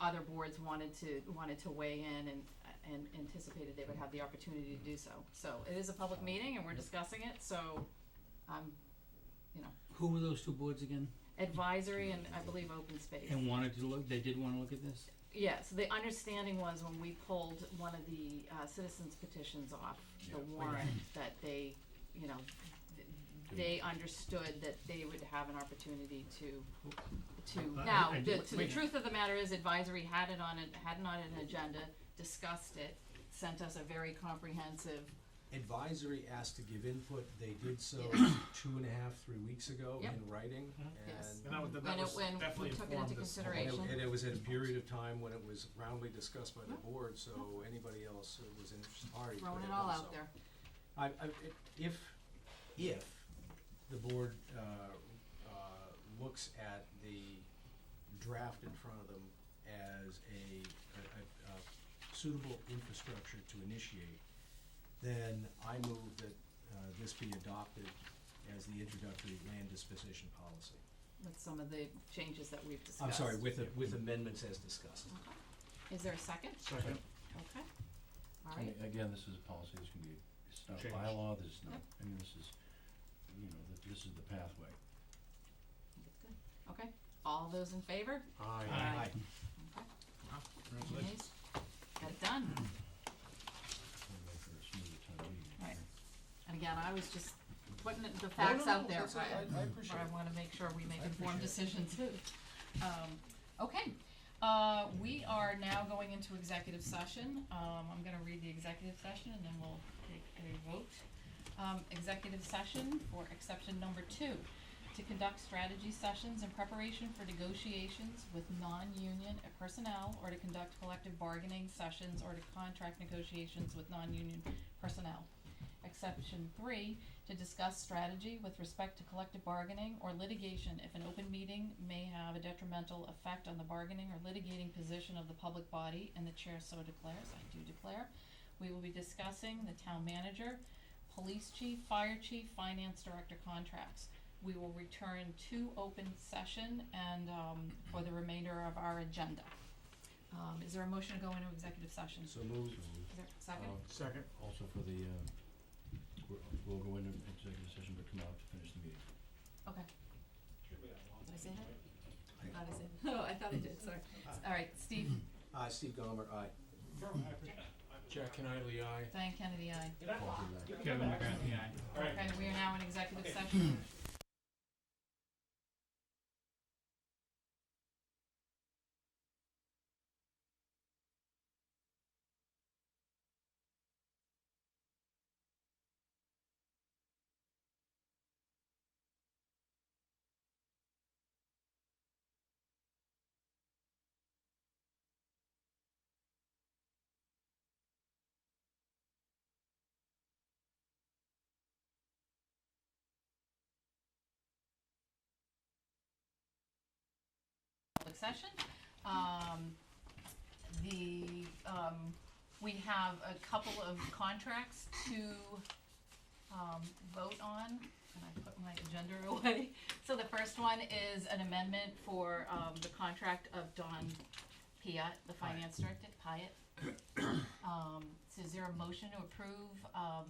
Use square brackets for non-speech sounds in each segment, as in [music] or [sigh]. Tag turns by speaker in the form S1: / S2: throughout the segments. S1: other boards wanted to, wanted to weigh in and, and anticipated they would have the opportunity to do so. So it is a public meeting and we're discussing it, so um, I'm
S2: Who were those two boards again?
S1: advisory and I believe open space.
S2: And wanted to look, they did wanna look at this?
S1: Yes, the understanding was when we pulled one of the uh, citizens petitions off the warrant, that they, you know, th- they understood that they would have an opportunity to, to,
S2: I- I-
S1: now,
S2: I
S1: the,
S2: did-
S1: to the
S2: wait.
S1: truth of the matter is advisory had it on, it had it on an agenda, discussed it, sent us a very comprehensive,
S3: Advisory asked to give input, they did so two and a half, three weeks ago
S1: Yep. Mm-hmm.
S3: in writing,
S4: Mhm.
S1: Yes.
S3: and
S4: And that was, that
S1: When it-
S4: was
S1: when we
S4: definitely
S1: took it
S4: informed
S1: into
S4: this whole-
S3: and
S1: consideration.
S3: it, and it was at a period of time when it was roundly discussed by the board, so anybody else who was interested party could have
S1: throwing
S3: done so.
S1: it all out there.
S3: I, I, it- if, if the board, uh, uh, looks at the draft in front of them as a, a, a, a suitable infrastructure to initiate, then I move that, uh, this be adopted as the introductory land disposition policy.
S1: With some of the changes that we've discussed.
S3: I'm sorry, with, a- with amendments as discussed.
S1: Okay. Is there a second?
S4: Second.
S1: Okay. All
S5: And
S1: right,
S5: Again, this is a policy, this can be, it's not a
S4: Changed.
S5: bylaw, this is not,
S1: Yep.
S5: I mean, this is, you know, th- this is the pathway.
S1: okay. All those in favor?
S4: Aye.
S1: Okay.
S4: Congratulations.
S1: Yes. Got it done.
S5: It's gonna make for a smoother town meeting.
S1: Right. And again, I was just putting it- the facts out there,
S3: I,
S1: but
S3: I appreciate
S1: I wanna make sure we make
S3: I
S1: informed
S3: appreciate
S1: decisions. Um, okay, uh, we are now going into executive session. Um, I'm gonna read the executive session and then we'll take a vote. Um, executive session for exception number two, to conduct strategy sessions in preparation for negotiations with non-union personnel or to conduct collective bargaining sessions or to contract negotiations with non-union personnel. Exception three, to discuss strategy with respect to collective bargaining or litigation if an open meeting may have a detrimental effect on the bargaining or litigating position of the public body and the chair so declares, I do declare. We will be discussing the town manager, police chief, fire chief, finance director contracts. We will return to open session and, um, for the remainder of our agenda. Um, is there a motion to go into executive session?
S3: So moved.
S1: Is there a second?
S5: Um,
S4: Second.
S5: Also for the, uh, we're- we'll go into executive session, but come out to finish the meeting.
S1: Okay. Did I say that? I thought I said, [laughs] oh, I thought I did, sorry. All right, Steve,
S3: Uh, Steve Gomer, aye.
S6: Jack Kennedy, aye.
S1: Diane Kennedy, aye.
S5: Call it a night.
S2: Kevin McCarthy, aye.
S1: Okay, we are now in executive session. public session. Um, the, um, we have a couple of contracts to, um, vote on, and I put my agenda [laughs] away. So the first one is an amendment for, um, the contract of Don Piatt, the finance director, Piatt. Um, so is there a motion to approve, um,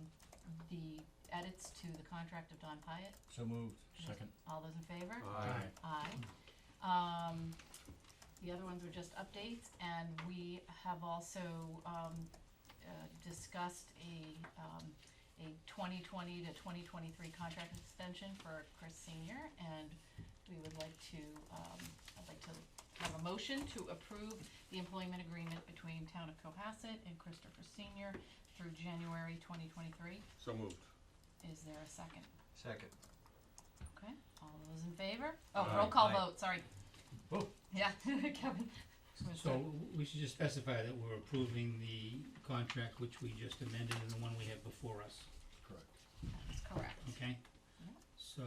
S1: the edits to the contract of Don Piatt?
S3: So moved.
S5: Second,
S1: All those in favor?
S3: Aye.
S1: Aye. Um, the other ones were just updates, and we have also, um, uh, discussed a, um, a twenty twenty to twenty twenty-three contract extension for Chris Senior, and we would like to, um, I'd like to have a motion to approve the employment agreement between Town of Cohasset and Christopher Senior through January twenty twenty-three.
S6: So moved.
S1: Is there a second?
S3: Second.
S1: Okay, all those in favor? Oh, roll call
S3: Aye.
S1: vote, sorry.
S2: Whoa.
S1: Yeah, [laughs] Kevin.
S2: So w- we should just specify that we're approving the contract which we just amended and the one we have before us,
S5: correct.
S1: That's correct.
S2: okay?
S1: Yeah.
S2: So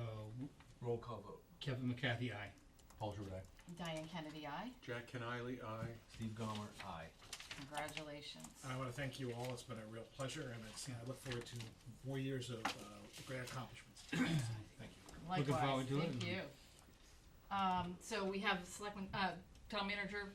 S3: Roll call vote.
S2: Kevin McCarthy, aye.
S5: Paul Giroux, aye.
S1: Diane Kennedy, aye.
S6: Jack Kennedy, aye.
S3: Steve Gomer, aye.
S1: Congratulations.
S3: Uh,
S4: I wanna thank you all, it's been a real pleasure, and it's, I look forward to more years of, uh, great accomplishments. Thank you.
S1: Likewise,
S2: forward to it
S1: thank
S2: and-
S1: you. Um, so we have selectmen, uh, town manager